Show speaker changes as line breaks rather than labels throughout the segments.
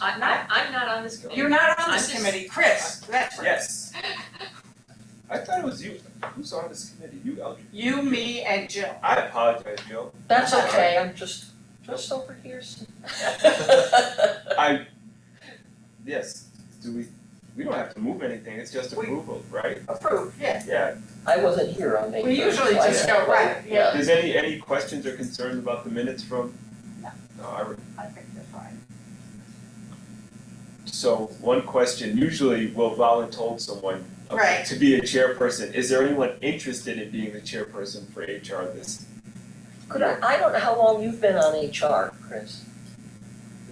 I'm not, I'm not on this committee.
You're not on
I'm
this
just-
committee, Chris, that's right.
Yes. I thought it was you. Who's on this committee? You, Eldridge.
You, me, and Jill.
I apologize, Neil.
That's okay, I'm just, just over here.
I, yes, do we, we don't have to move anything, it's just
We-
approval, right?
Approved, yeah.
Yeah.
I wasn't here on May
We
first,
usually
so I
just
don't
go
know.
right, yeah.
Is any, any questions or concerns about the minutes from?
No.
No, I, re-
I think they're fine.
so one question, usually we'll volunteer someone uh,
Right.
to be a chairperson. Is there anyone interested in being the chairperson for HR this
Could I, I don't know how long you've been on HR, Chris,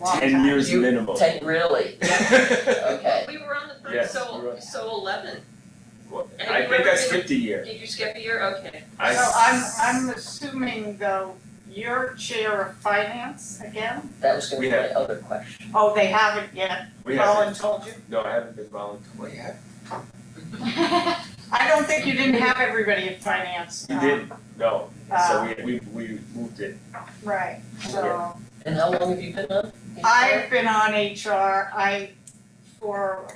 Long
ten
time.
years
You-
minimum?
ten, really? Okay,
We were on the
Yes,
first,
we
so,
were on-
so eleven.
Well,
And
I
you
think
ever
I
been-
skipped a year.
Did you skip a year? Okay.
I-
So I'm, I'm assuming though, you're chair of finance again?
that was gonna
We
be my other question.
Oh, they haven't yet,
We
Colin
haven't,
told you?
no, I haven't been volunteering yet.
I don't think you didn't have everybody at finance.
We
um,
didn't, no, so
uh,
we, we, we moved it.
Right, so.
And how long have you been on? HR?
I've been on HR, I, for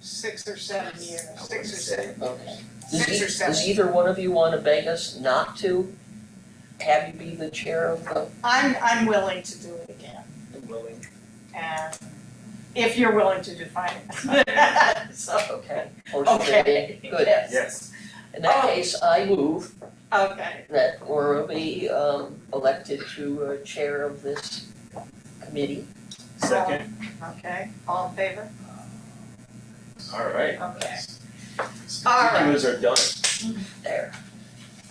six or seven years, six or seven,
Okay. Does
six
e-
or seven.
Does either one of you wanna beg us not to have you be the chair of the,
I'm, I'm willing to do it again,
Willing.
and if you're willing to define
I
it. So,
okay, or should
okay,
it be? good.
yes.
Yes,
In that
Oh.
case, I move
Okay,
that Laura be, um, elected to uh, chair of this committee.
second,
okay, all in favor?
all right.
Okay, All right.
Particulars are done.
There,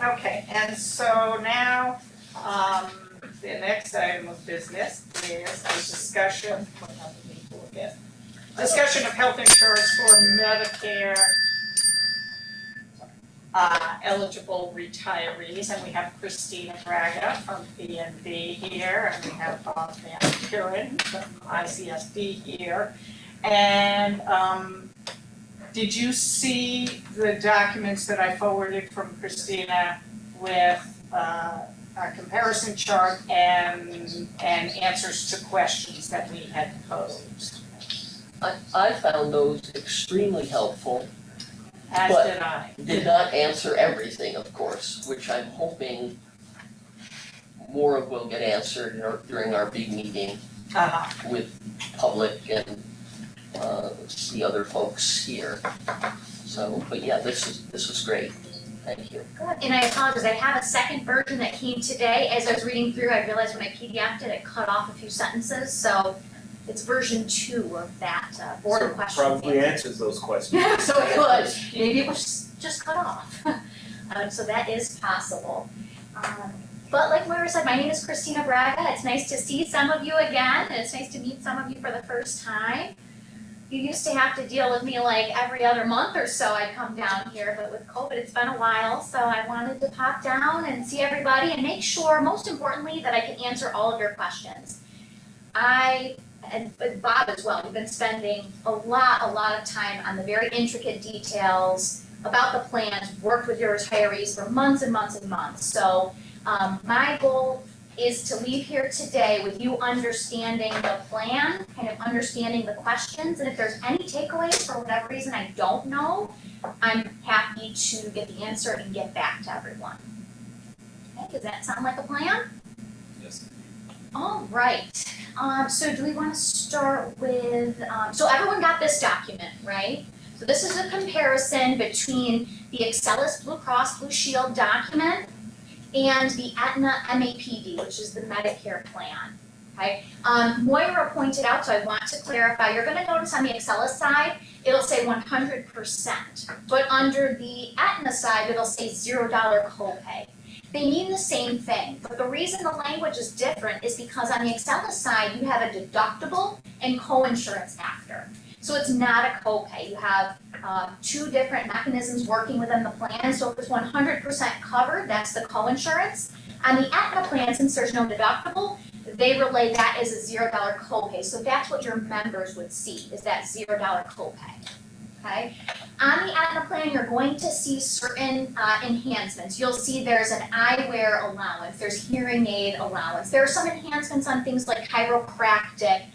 okay, and so now, um, the next item of business is a discussion, what happened to me again? Discussion of health insurance for Medicare uh, eligible retirees, and we have Christina Braga from B and B here, and we have Bob Van Kuren from ICSD here. And, um, did you see the documents that I forwarded from Christina with, uh, a comparison chart and, and answers to questions that we had posed?
I, I found those extremely helpful,
As
But-
did I.
did not answer everything, of course, which I'm hoping more of will get answered in our- during our big meeting
Uh-huh,
with public and, uh, the other folks here. So, but yeah, this is, this is great, thank you.
And I apologize, I have a second version that came today. As I was reading through, I realized when I PDFed it, it cut off a few sentences, so it's version two of that uh, board of questions.
So Probably
answered.
answers those questions.
So it could, maybe it was just cut off. Um, so that is possible. Um, But like Moira said, my name is Christina Braga. It's nice to see some of you again, and it's nice to meet some of you for the first time. You used to have to deal with me like every other month or so I'd come down here, but with COVID, it's been a while, so I wanted to pop down and see everybody and make sure, most importantly, that I can answer all of your questions. I and but Bob as well, we've been spending a lot, a lot of time on the very intricate details about the plans, worked with your retirees for months and months and months. So um my goal is to leave here today with you understanding the plan, kind of understanding the questions, and if there's any takeaways for whatever reason I don't know, I'm happy to get the answer and get back to everyone. Okay, does that sound like a plan?
Yes.
All right, um, so do we wanna start with, um, so everyone got this document, right? So this is a comparison between the Excelis Blue Cross Blue Shield document and the Aetna MAPD, which is the Medicare plan, okay? Um, Moira pointed out, so I want to clarify, you're gonna notice on the Excelis side, it'll say one hundred percent, but under the Aetna side, it'll say zero dollar copay they mean the same thing, but the reason the language is different is because on the Excella side, you have a deductible and co-insurance after. So it's not a copay, you have uh, two different mechanisms working within the plan, so if it's one hundred percent covered, that's the co-insurance. On the Aetna plan, since there's no deductible, they relay that as a zero dollar copay, so that's what your members would see, is that zero dollar copay, okay? On the Aetna plan, you're going to see certain uh, enhancements. You'll see there's an eyewear allowance, there's hearing aid allowance. There are some enhancements on things like chiropractic